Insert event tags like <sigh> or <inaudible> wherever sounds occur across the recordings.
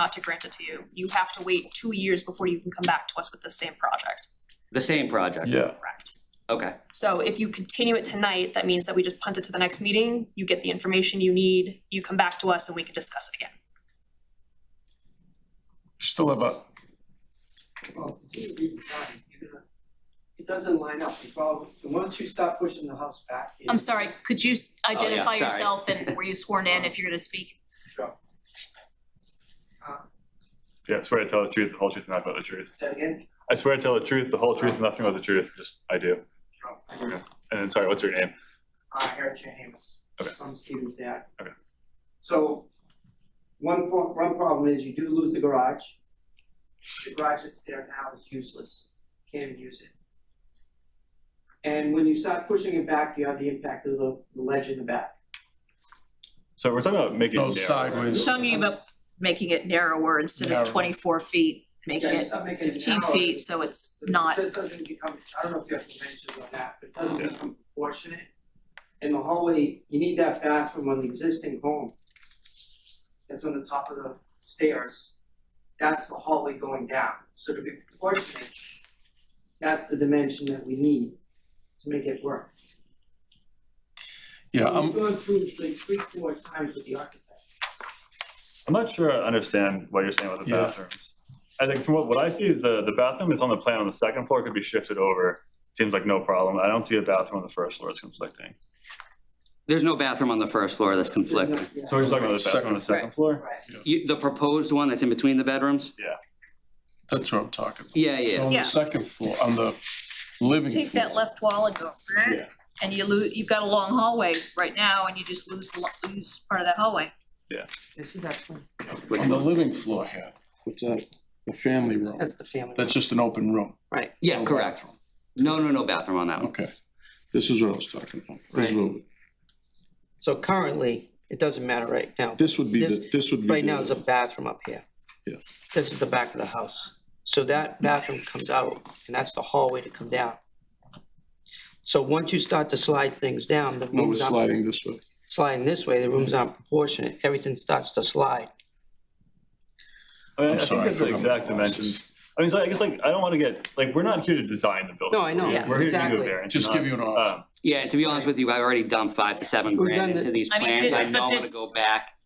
not to grant it to you. You have to wait two years before you can come back to us with the same project, The same project? Yeah, correct? Okay, So if you continue it tonight, that means that we just punt it to the next meeting, you get the information you need, you come back to us and we can discuss it again. still have a, Well, continue to be design, you're gonna- uh, It doesn't line up, you follow, and once you stop pushing the house back. in- I'm sorry, could you s- Oh, yeah, identify sorry. yourself <laughs> and were you sworn in if you're gonna speak? Sure. Yeah, I swear to tell the truth, the whole truth, and nothing but the truth. Uh, Say it again, I swear to tell the truth, the whole truth, and nothing but the truth. Just I do. sure. And then, sorry, what's your name? Uh, Eric James. Okay. From Stevens Dad. Okay. So, one pro- one problem is you do lose the garage. The garage that's there now is useless, can't even use it. And when you start pushing it back, you have the impact of the the ledge in the back. So we're talking about making no it narrow, right? sideways. talking about making it narrower instead Narrower. of twenty-four feet, make Yeah, you it start making it fifteen narrower. feet, so it's not, This doesn't become, I don't know if you have dimensions on that, but it doesn't become proportionate. And the hallway, you need that bathroom on the existing home. That's on the top of the stairs. That's the hallway going down, so to be proportionate, that's the dimension that we need to make it work. Yeah, We've um, gone through like three, four times with the architect. I'm not sure I understand what you're saying about the Yeah. bathrooms. I think from what, what I see, the, the bathroom is on the plan on the second floor, could be shifted over. Seems like no problem. I don't see a bathroom on the first floor. It's conflicting. there's no bathroom on the first floor that's conflicting. Yeah. So we're just talking about the bathroom on the second floor? Right. You, the proposed one that's in between the bedrooms? that's what I'm talking about. Yeah, So yeah, on Yeah. the second floor, on the living take floor. that left wall and go, Yeah. and you lose, you've got a long hallway right now, and you just lose, the lo- lose part of that hallway. You see that one? On the living floor here, what's that, the family room, That's the family. that's just an open room, Right. yeah, correct. No, no, no bathroom on that one. okay. This is what I was talking about, this Right. would, So currently, it doesn't matter right now. this would be, the This- this would be. Right the- now is a bathroom up here. Yeah. This is the back of the house. So that bathroom comes out and that's the hallway to come down. So once you start to slide things down, the No, rooms it's aren't, sliding this way, sliding this way, the rooms aren't proportionate. Everything starts to slide. I mean, I I'm think sorry. that's the forgot my exact glasses. dimensions. I mean, so I guess like, I don't want to get, like, we're not here to design the building. No, I know, We're here- We're here to give you a exactly. variance. Just not- give you an option. um, Yeah, and to be honest with you, I've already dumped five to seven We've grand done into it. these I mean, plans. thi- I but know I'm gonna this- go back.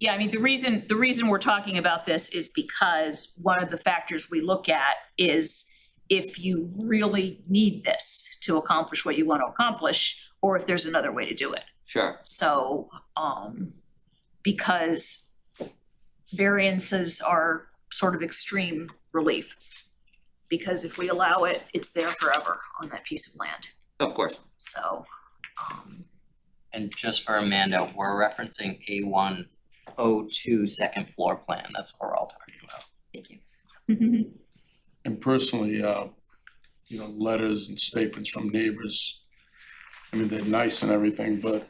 Yeah, I mean, the reason, the reason we're talking about this is because one of the factors we look at is if you really need this to accomplish what you want to accomplish, or if there's another way to do it. Sure, So, um, because variances are sort of extreme relief. Because if we allow it, it's there forever on that piece of land, of course. so, um, And just for Amanda, we're referencing A one oh two second floor plan, that's what we're all talking about. Thank you. And personally, uh, you know, letters and statements from neighbors, I mean, they're nice and everything, but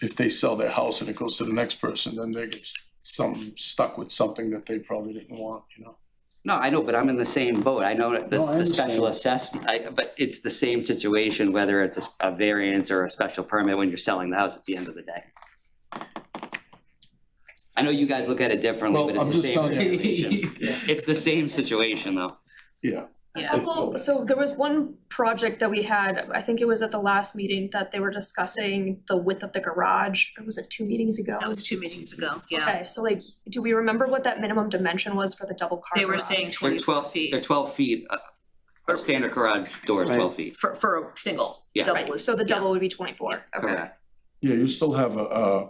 if they sell their house and it goes to the next person, then they get s- some, stuck with something that they probably didn't want, you know? No, I know, but I'm in the same boat. I know that this, No, I the special understand. assessment, I, but it's the same situation, whether it's a s- a variance or a special permit when you're selling the house at the end of the day. I know you guys look at it differently, Well, but it's I'm the just same telling you. situation. <laughs> It's the same situation, though. Yeah. yeah. Well, so there was one project that we had, I think it was at the last meeting that they were discussing the width of the garage, or was it two meetings ago? That was two meetings ago, yeah. Okay, so like, do we remember what that minimum dimension was for the double car They were garage? saying They're twenty-four twelve, they're feet twelve feet, uh, a standard garage door is Right. twelve feet, for, for a single, Yeah. double Right, is, so the double would be twenty-four, okay. correct? Yeah, you still have a, uh,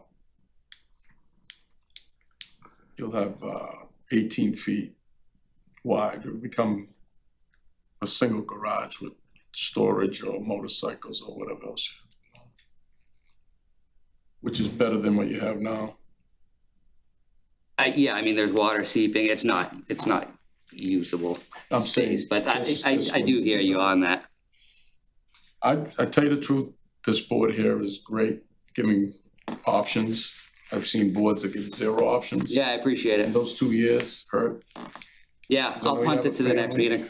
you'll have, uh, eighteen feet wide, it'll become a single garage with storage or motorcycles or whatever else. you have. Which is better than what you have now. I, yeah, I mean, there's water seeping, it's not, it's not usable I'm saying, space, but I, this- I, this I do one. hear you on that. I, I tell you the truth, this board here is great, giving options. I've seen boards that give zero options. Yeah, I appreciate And it. those two years hurt. Yeah, So I'll we punt have it a to the next family. meeting.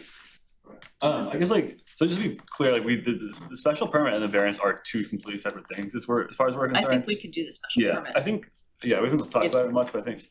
Um, I guess like, so just to be clear, like we, the, the the special permit and the variance are two completely separate things, as we're, as far as we're I concerned. think we could do the special Yeah, I permit. think, yeah, we haven't thought about it much, but I think,